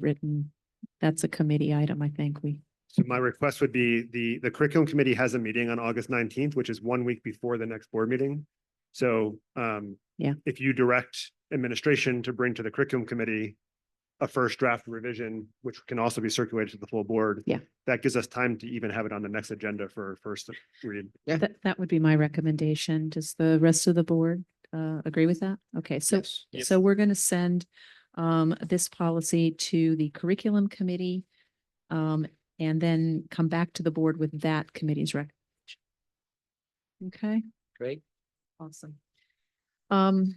rewritten. That's a committee item, I think we, So my request would be the, the curriculum committee has a meeting on August nineteenth, which is one week before the next board meeting. So, um. Yeah. If you direct administration to bring to the curriculum committee a first draft revision, which can also be circulated to the full board. Yeah. That gives us time to even have it on the next agenda for first read. Yeah. that, that would be my recommendation. Does the rest of the board uh, agree with that? Okay, so, so we're going to send um, this policy to the curriculum committee um, and then come back to the board with that committee's recommendation. Okay? Great. Awesome. Um,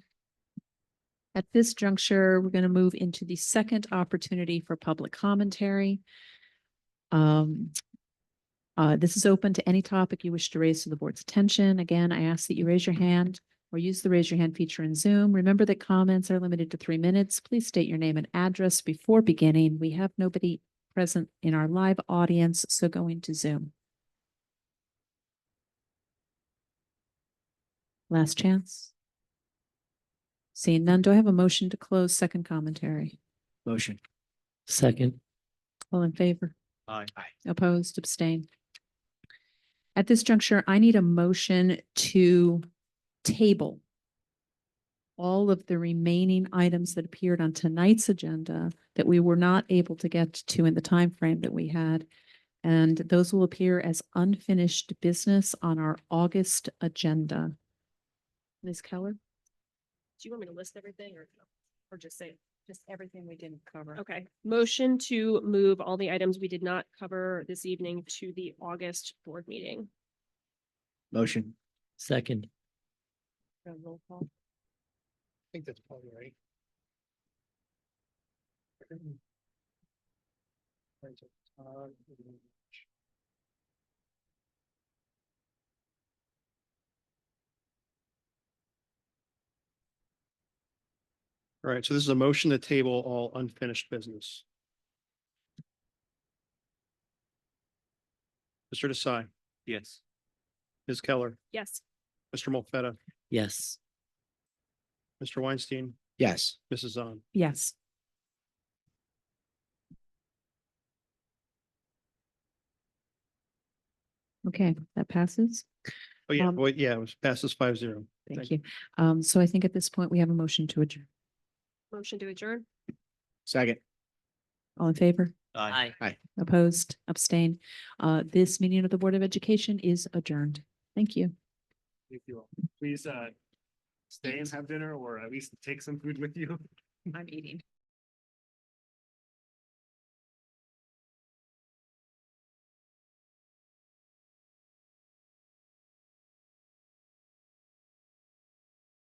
at this juncture, we're going to move into the second opportunity for public commentary. Um, uh, this is open to any topic you wish to raise to the board's attention. Again, I ask that you raise your hand or use the raise your hand feature in Zoom. Remember that comments are limited to three minutes. Please state your name and address before beginning. We have nobody present in our live audience, so going to Zoom. Last chance. Seeing none, do I have a motion to close second commentary? Motion. Second. All in favor? Aye. Opposed, abstained. At this juncture, I need a motion to table all of the remaining items that appeared on tonight's agenda that we were not able to get to in the time frame that we had. And those will appear as unfinished business on our August agenda. Ms. Keller? Do you want me to list everything or, or just say? Just everything we didn't cover. Okay, motion to move all the items we did not cover this evening to the August board meeting. Motion. Second. Roll call. think that's probably right. All right, so this is a motion to table all unfinished business. Mr. Desai, Yes. Ms. Keller, Yes, Mr. Molfetta, Yes. Mr. Weinstein, Yes. Mrs. Zahn. Yes. Okay, that passes. Oh, yeah, Um, wait, yeah, it was passes five zero. Thank Thank you. Um, so I think at this point we have a motion to adjourn. motion to adjourn. Second. All in favor? Aye. Aye. Opposed? Abstained? Uh, this meeting of the Board of Education is adjourned. Thank you. If you will, please, uh, stay and have dinner or at least take some food with you. I'm eating.